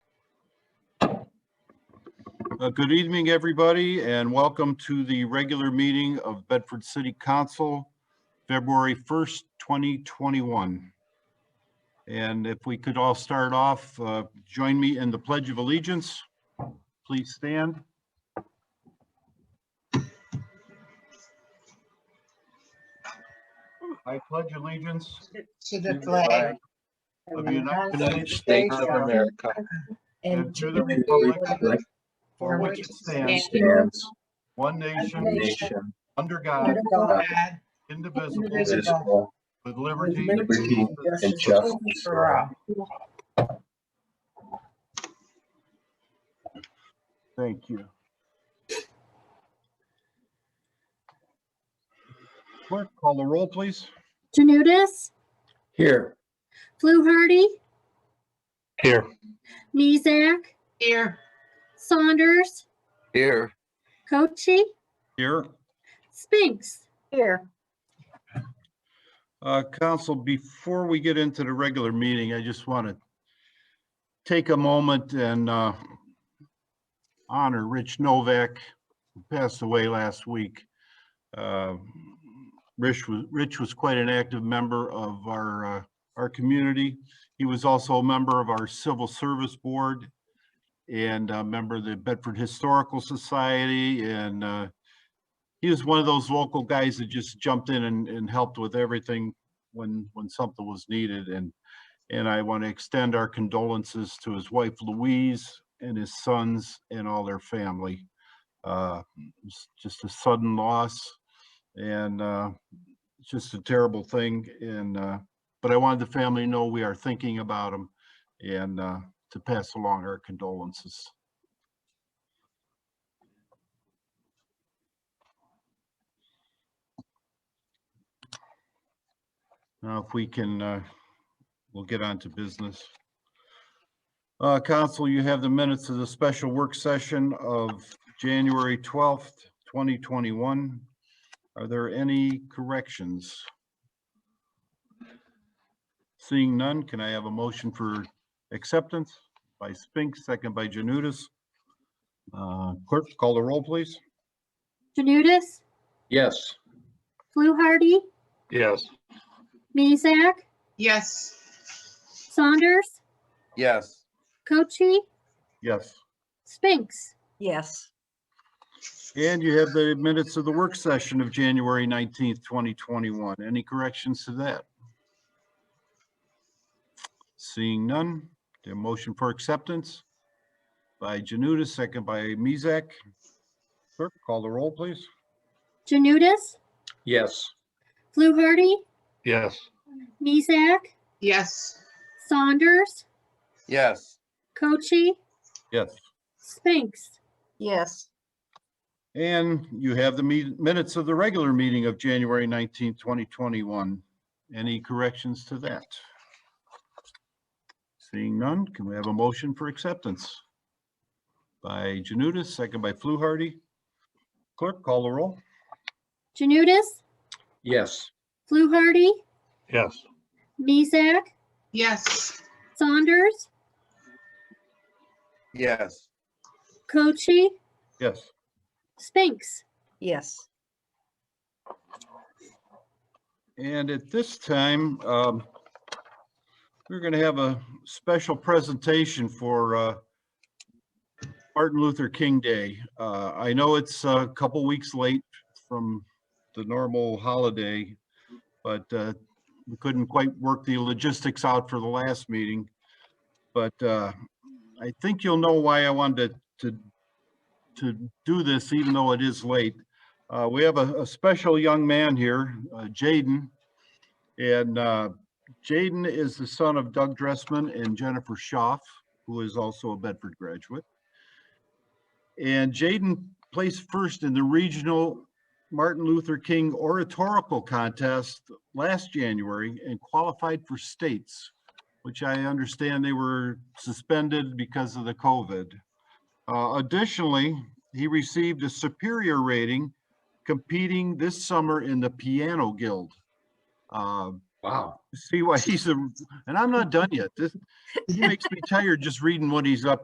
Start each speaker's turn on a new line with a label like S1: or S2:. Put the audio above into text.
S1: Uh, Good evening, everybody, and welcome to the regular meeting of Bedford City Council, February 1st, 2021. And if we could all start off, uh, join me in the Pledge of Allegiance. Please stand. I pledge allegiance
S2: To the flag
S1: of the United
S3: United
S1: States
S3: States of America.
S1: and
S2: and
S1: to the
S2: republic
S1: republic
S2: for which it stands,
S3: Stands
S1: one nation,
S3: nation
S1: under
S2: under
S1: God,
S2: God,
S1: indivisible,
S2: indivisible,
S3: visible
S1: with
S2: with
S1: liberty and
S2: liberty and justice for all.
S1: Thank you. Clerk, call the roll, please.
S4: Janutus,
S3: here.
S4: Fluharty,
S3: Here.
S4: Mezak,
S2: Here.
S4: Saunders,
S3: Here.
S4: Cochi,
S1: Here.
S4: Spinks.
S2: Here.
S1: Uh, Council, before we get into the regular meeting, I just want to take a moment and uh, honor Rich Novak, who passed away last week. Uh, Rich was, Rich was quite an active member of our, uh, our community. He was also a member of our Civil Service Board and a member of the Bedford Historical Society and uh, he was one of those local guys that just jumped in and, and helped with everything when, when something was needed and, and I want to extend our condolences to his wife Louise and his sons and all their family. Uh, it's just a sudden loss and, uh, it's just a terrible thing and, uh, but I wanted the family to know we are thinking about them and, uh, to pass along our condolences. Now, if we can, uh, we'll get on to business. Uh, Council, you have the minutes of the special work session of January 12th, 2021. Are there any corrections? Seeing none, can I have a motion for acceptance by Spinks, second by Janutus? Uh, Clerk, call the roll, please.
S4: Janutus,
S3: Yes.
S4: Fluharty,
S3: Yes.
S4: Mezak,
S2: Yes.
S4: Saunders,
S3: Yes.
S4: Cochi,
S1: Yes.
S4: Spinks.
S2: Yes.
S1: And you have the minutes of the work session of January 19th, 2021. Any corrections to that? Seeing none, the motion for acceptance by Janutus, second by Mezak. Clerk, call the roll, please.
S4: Janutus,
S3: Yes.
S4: Fluharty,
S3: Yes.
S4: Mezak,
S2: Yes.
S4: Saunders,
S3: Yes.
S4: Cochi,
S1: Yes.
S4: Spinks.
S2: Yes.
S1: And you have the me- minutes of the regular meeting of January 19th, 2021. Any corrections to that? Seeing none, can we have a motion for acceptance? By Janutus, second by Fluharty. Clerk, call the roll.
S4: Janutus,
S3: Yes.
S4: Fluharty,
S3: Yes.
S4: Mezak,
S2: Yes.
S4: Saunders,
S3: Yes.
S4: Cochi,
S1: Yes.
S4: Spinks.
S2: Yes.
S1: And at this time, um, we're going to have a special presentation for, uh, Martin Luther King Day. Uh, I know it's a couple weeks late from the normal holiday, but, uh, we couldn't quite work the logistics out for the last meeting. But, uh, I think you'll know why I wanted to, to do this even though it is late. Uh, we have a, a special young man here, uh, Jaden. And, uh, Jaden is the son of Doug Dressman and Jennifer Schaff, who is also a Bedford graduate. And Jaden placed first in the regional Martin Luther King Oratorical Contest last January and qualified for states, which I understand they were suspended because of the COVID. Uh, additionally, he received a superior rating competing this summer in the Piano Guild. Uh,
S3: Wow.
S1: See why he's a, and I'm not done yet. This, he makes me tired just reading what he's up